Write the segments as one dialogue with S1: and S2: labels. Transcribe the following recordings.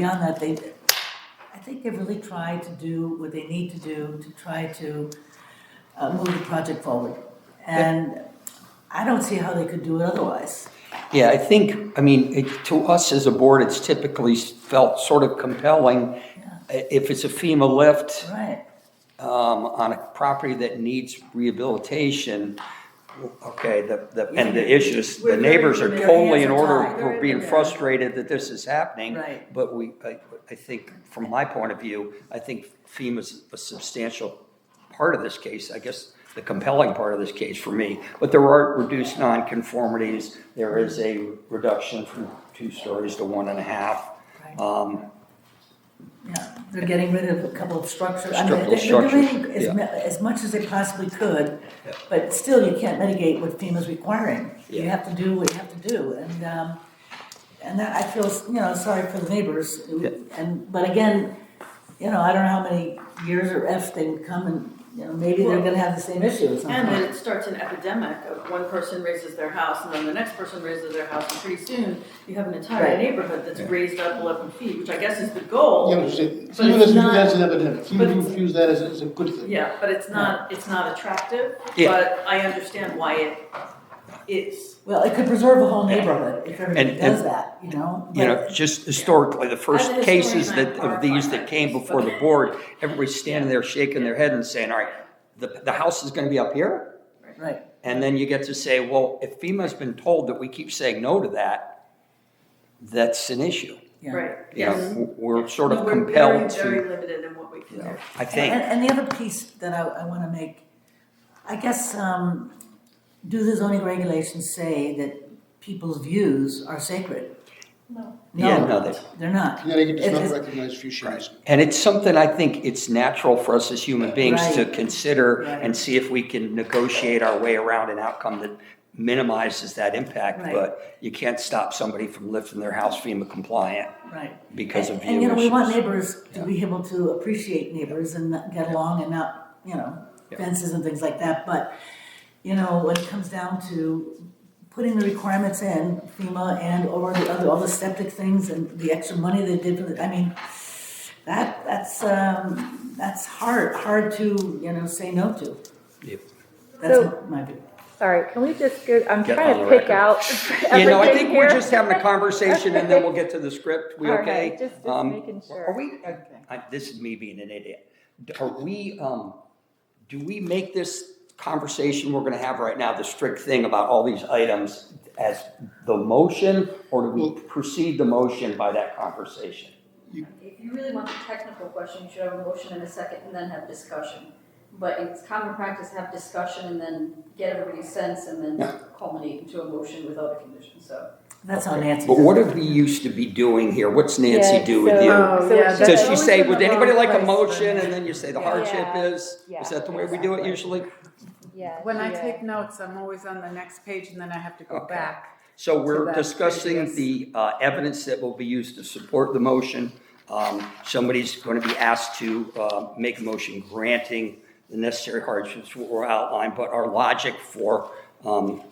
S1: Beyond that, they, I think they've really tried to do what they need to do to try to uh, move the project forward. And I don't see how they could do it otherwise.
S2: Yeah, I think, I mean, it- to us as a board, it's typically felt sort of compelling. I- If it's a FEMA lift
S1: Right.
S2: um, on a property that needs rehabilitation, okay, the, the, and the issues, the
S1: We're very
S2: neighbors are
S1: familiar.
S2: totally in
S1: Hands are
S2: order,
S1: tied.
S2: we're being frustrated that this is happening.
S1: Right.
S2: But we, I, I think, from my point of view, I think FEMA's a substantial part of this case, I guess, the compelling part of this case for me. But there are reduced nonconformities, there is a reduction from two stories to one and a half.
S1: Right.
S2: Um,
S1: Yeah, they're getting rid of a couple of structures. I mean,
S2: Structural
S1: they're- they're doing
S2: structures,
S1: as
S2: yeah.
S1: mu- As much as they possibly could, but still you can't mitigate what FEMA's requiring. You
S2: Yeah.
S1: have to do what you have to do, and, um, and that, I feel, you know, sorry for the neighbors. And, but again, you know, I don't know how many years or if they would come and, you know, maybe they're
S3: Well-
S1: gonna have the same issue at some
S3: And then
S1: point.
S3: it starts an epidemic of one person raises their house and then the next person raises their house and pretty soon you have an entire
S1: Right.
S3: neighborhood that's raised up eleven feet, which I guess is the goal.
S4: Yeah, but you say,
S3: But
S4: some of
S3: Oh. it's
S4: us view
S3: not-
S4: that as an epidemic, some
S3: but
S4: people
S3: it's-
S4: view that as, as a good thing.
S3: Yeah, but it's not, it's not attractive,
S2: Yeah.
S3: but I understand why it is.
S1: Well, it could preserve a whole neighborhood if everybody
S2: And- and-
S1: does that, you know?
S2: You know,
S1: but-
S2: just historically, the first
S3: As a
S2: cases
S3: historian,
S2: that,
S3: I'm
S2: of these that
S3: horrified by
S2: came
S3: this,
S2: before
S3: but-
S2: the board, everybody's standing there shaking their head and saying, all right, the, the house is gonna be up here?
S1: Right,
S2: And then you get to say, well, if FEMA's been told that we keep saying no to that, that's an issue.
S1: yeah.
S3: Right,
S2: You know,
S3: yes.
S2: w- we're sort
S3: No,
S2: of
S3: we're
S2: compelled
S3: Very,
S2: to,
S3: very limited in what we can
S2: you
S3: do.
S2: know, I
S1: And,
S2: think,
S1: and the other piece that I, I wanna make, I guess, um, do the zoning regulations say that people's views are sacred? No.
S2: yeah, no, they-
S1: They're not.
S4: Connecticut does
S1: It
S4: not
S1: is-
S4: recognize fuchsianism.
S2: and it's something I think it's natural for us as human beings to
S1: Right.
S2: consider and
S1: Right.
S2: see if we can negotiate our way around an outcome that minimizes that impact,
S1: Right.
S2: but you can't stop somebody from lifting their house FEMA compliant
S1: Right.
S2: because of
S1: And-
S2: view
S1: And, you know, we want
S2: issues.
S1: neighbors to be able to appreciate neighbors and not get along and not, you know,
S2: Yeah.
S1: fences and things like that, but, you know, when it comes down to putting the requirements in, FEMA and or the other, all the septic things and the extra money they did for the, I mean, that, that's, um, that's hard, hard to, you know, say no to.
S2: Yep.
S1: That's
S5: So-
S1: my view.
S5: Sorry, can we just go, I'm
S2: Get
S5: trying
S2: on
S5: to
S2: the
S5: pick
S2: record.
S5: out
S2: You know, I
S5: everything
S2: think we're
S5: here.
S2: just having a conversation and then we'll get to the script. We
S5: All right,
S2: okay?
S5: just- just
S2: Um,
S5: making sure.
S2: Are we, I- this is me being an idiot. D- Are we, um, do we make this conversation we're gonna have right now, the strict thing about all these items as the motion? Or do we proceed the motion by that conversation?
S6: If you really want the technical question, you should have a motion and a second and then have discussion. But it's common practice to have discussion and then get everybody's sense and
S2: Yeah.
S6: then culminate into a motion without a condition, so.
S1: That's how Nancy
S2: But
S1: does
S2: what
S1: it.
S2: did we used to be doing here? What's Nancy do with you?
S7: Oh,
S5: So it's
S2: Does
S5: just-
S2: she say, would anybody like a motion? And then you say the hardship
S5: Yeah.
S2: is?
S5: Yeah,
S2: Is that the way we do it
S5: exactly.
S2: usually?
S5: Yeah,
S7: When I
S5: yeah.
S7: take notes, I'm always on the next page and then I have to go
S2: Okay.
S7: back.
S2: So we're
S7: that
S2: discussing
S7: previous-
S2: the uh, evidence that will be used to support the motion. Um, Somebody's going to be asked to uh, make a motion granting the necessary hardships were outlined, but our logic for um,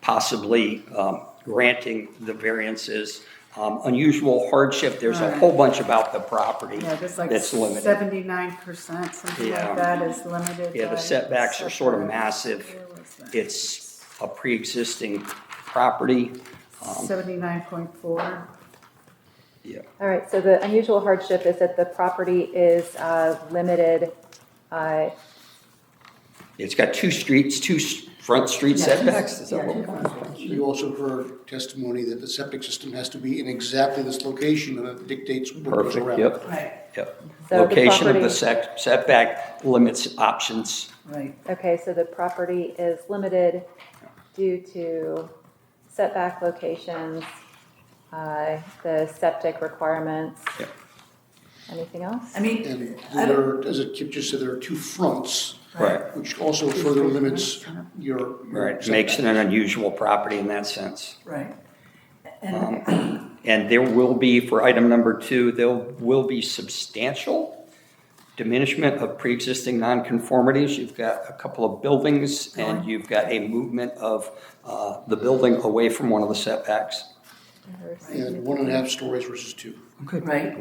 S2: possibly um, granting the variances, um, unusual hardship, there's a whole bunch about the property
S7: Yeah, there's like
S2: that's limited.
S7: seventy-nine percent, something
S2: Yeah.
S7: like that is limited.
S2: Yeah, the
S7: by
S2: setbacks are sort of
S7: setbacks.
S2: massive.
S7: Where was that?
S2: It's a pre-existing property. um,
S7: Seventy-nine point four.
S2: Yeah.
S5: All right, so the unusual hardship is that the property is uh, limited, uh,
S2: It's got two streets, two s- front street
S1: Yeah, two-
S2: setbacks, is that
S1: yeah,
S2: what?
S1: two
S2: we're-
S1: front streets.
S4: You also heard testimony that the septic system has to be in exactly this location and it dictates what goes
S2: Perfect,
S4: around.
S2: yep,
S1: Right,
S2: yep.
S5: So the
S2: Location of the
S5: property-
S2: sec- setback limits options.
S1: right.
S5: okay, so the property is limited due to setback locations, uh, the septic requirements.
S2: Yep.
S5: Anything else?
S1: I mean,
S4: And
S1: I don't,
S4: there, as Kip just said, there are two fronts,
S2: Right.
S4: which also further limits your. your
S2: Right, makes it
S4: setback.
S2: an unusual property in that sense.
S1: right. And-
S2: And there will be, for item number two, there will be substantial diminishment of pre-existing nonconformities. You've got a couple of buildings and you've got a movement of uh, the building away from one of the setbacks.
S5: Or-
S4: And one and a half stories versus two.
S2: Okay.
S1: Right.